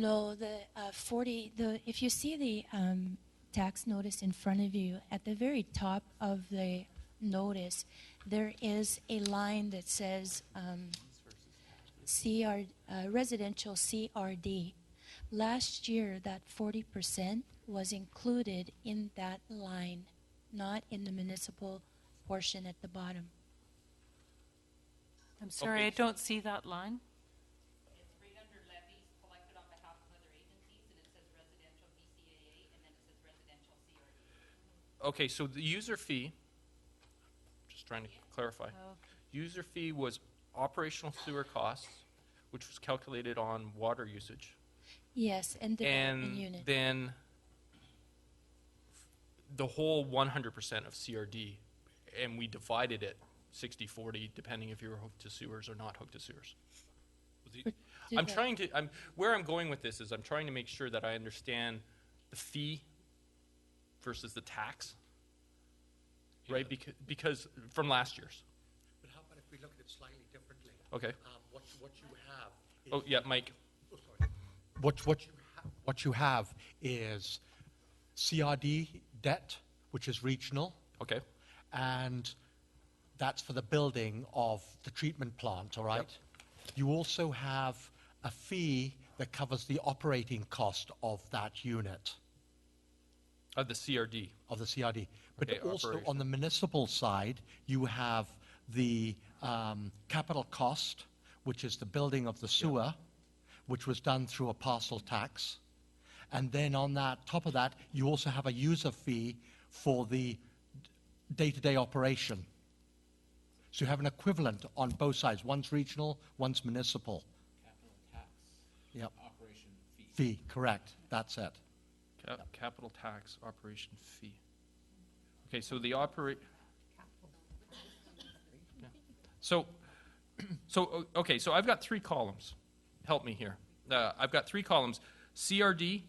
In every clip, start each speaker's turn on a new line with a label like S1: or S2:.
S1: No, the uh, 40, the, if you see the um, tax notice in front of you, at the very top of the notice, there is a line that says um, CR, uh, residential CRD. Last year, that 40% was included in that line, not in the municipal portion at the bottom.
S2: I'm sorry, I don't see that line.
S3: It's right under levies collected on behalf of other agencies, and it says residential BCAA, and then it says residential E. CRD.
S4: Okay, so the user fee, just trying to clarify. User fee was operational sewer costs, which was calculated on water usage.
S1: Yes, and development
S4: And
S1: unit.
S4: then the whole one hundred percent of CRD, and we divided it 60-40, depending if you were hooked to sewers or not hooked to sewers.
S1: Do
S4: I'm
S1: that.
S4: trying to, I'm, where I'm going with this is I'm trying to make sure that I understand the fee versus the tax, right? Because, because, from last year's,
S5: But how about if we look at it slightly differently?
S4: okay?
S5: Um, What, what you have is.
S4: Oh, yeah, Mike,
S5: oh, sorry. What, what you, ha- what you have is CRD debt, which is regional,
S4: okay,
S5: and that's for the building of the treatment plant, all right? You also have a fee that covers the operating cost of that unit.
S4: of the CRD,
S5: of the CRD. But
S4: Okay,
S5: also
S4: operation.
S5: on the municipal side, you have the um, capital cost, which is the building of the sewer, which was done through a parcel tax. And then on that, top of that, you also have a user fee for the d- day-to-day operation. So you have an equivalent on both sides. One's regional, one's municipal. Capital tax. Yep. Operation fee. Fee, correct. That's it.
S4: cap, capital tax operation fee. Okay, so the operate. So, so, o- okay, so I've got three columns. Help me here. Uh, I've got three columns. CRD,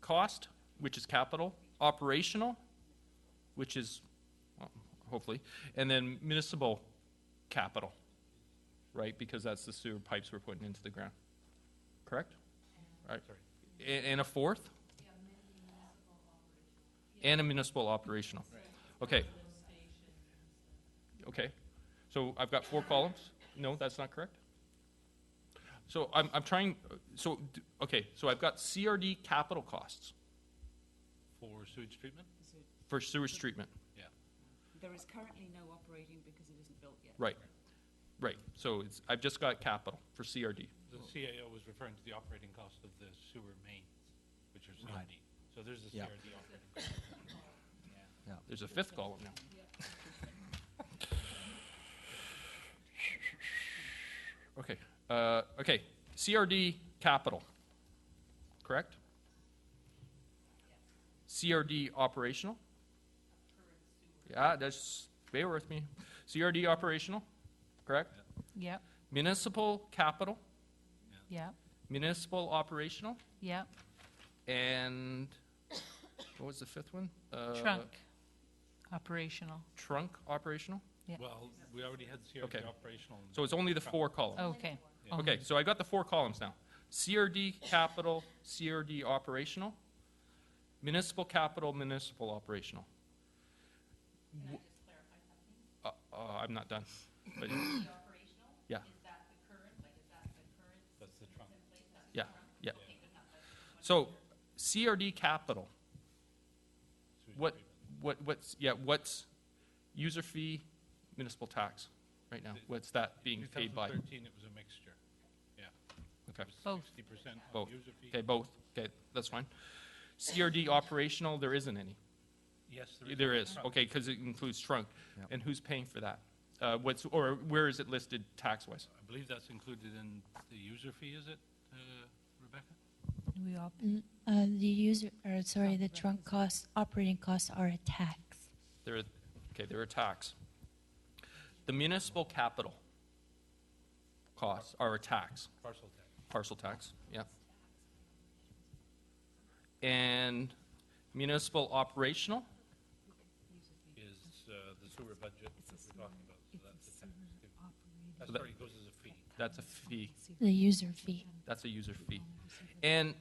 S4: cost, which is capital, operational, which is, well, hopefully, and then municipal capital, right? Because that's the sewer pipes we're putting into the ground. Correct? Right. And, and a fourth? And a municipal operational. Okay. Okay. So I've got four columns? No, that's not correct? So I'm, I'm trying, so, d- okay, so I've got CRD capital costs
S6: For sewage treatment?
S4: for sewage treatment.
S6: Yeah.
S7: There is currently no operating because it isn't built yet.
S4: Right. Right. So it's, I've just got capital for CRD.
S6: The CAO was referring to the operating cost of the sewer mains, which are CRD. So there's the
S5: Yeah.
S6: CRD operating cost.
S4: There's a fifth column now. Okay, uh, okay, CRD capital, correct? CRD operational? Yeah, that's, bear with me. CRD operational, correct?
S2: Yep,
S4: Municipal capital,
S2: yep,
S4: municipal operational,
S2: yep.
S4: and what was the fifth one? Uh,
S2: Trunk, operational.
S4: Trunk operational?
S2: Yeah.
S6: Well, we already had
S4: Okay.
S6: CRD operational.
S4: So it's only the four columns.
S2: Okay.
S4: Okay, so I got the four columns now. CRD capital, CRD operational, municipal capital, municipal operational. Uh, uh, I'm not done. But-
S3: The operational,
S4: Yeah,
S3: is that the current, like, is that the current
S6: That's the trunk.
S3: place? That's
S4: yeah, yeah.
S3: taken up by
S4: So CRD capital, what, what, what's, yeah, what's user fee, municipal tax right now? What's that being paid by?
S6: 2013, it was a mixture. Yeah.
S4: Okay.
S2: Both.
S6: 60% on
S4: Both.
S6: user fee.
S4: Okay, both. Okay, that's fine. CRD operational, there isn't any.
S6: Yes, there
S4: Yeah,
S6: is.
S4: There is,
S6: Trunk.
S4: okay, because it includes trunk. And who's paying for that? Uh, What's, or where is it listed tax-wise?
S6: I believe that's included in the user fee, is it, uh, Rebecca?
S2: We all,
S1: Uh, the user, or sorry, the trunk costs, operating costs are a tax.
S4: There, are- okay, there are tax. The municipal capital costs are a tax,
S6: Parcel tax.
S4: parcel tax, yeah. And municipal operational,
S6: is uh, the sewer budget that we're talking about, so that's a tax. too. That's
S4: But-
S6: already goes as a fee.
S4: That's a fee,
S1: the user fee.
S4: that's a user fee. And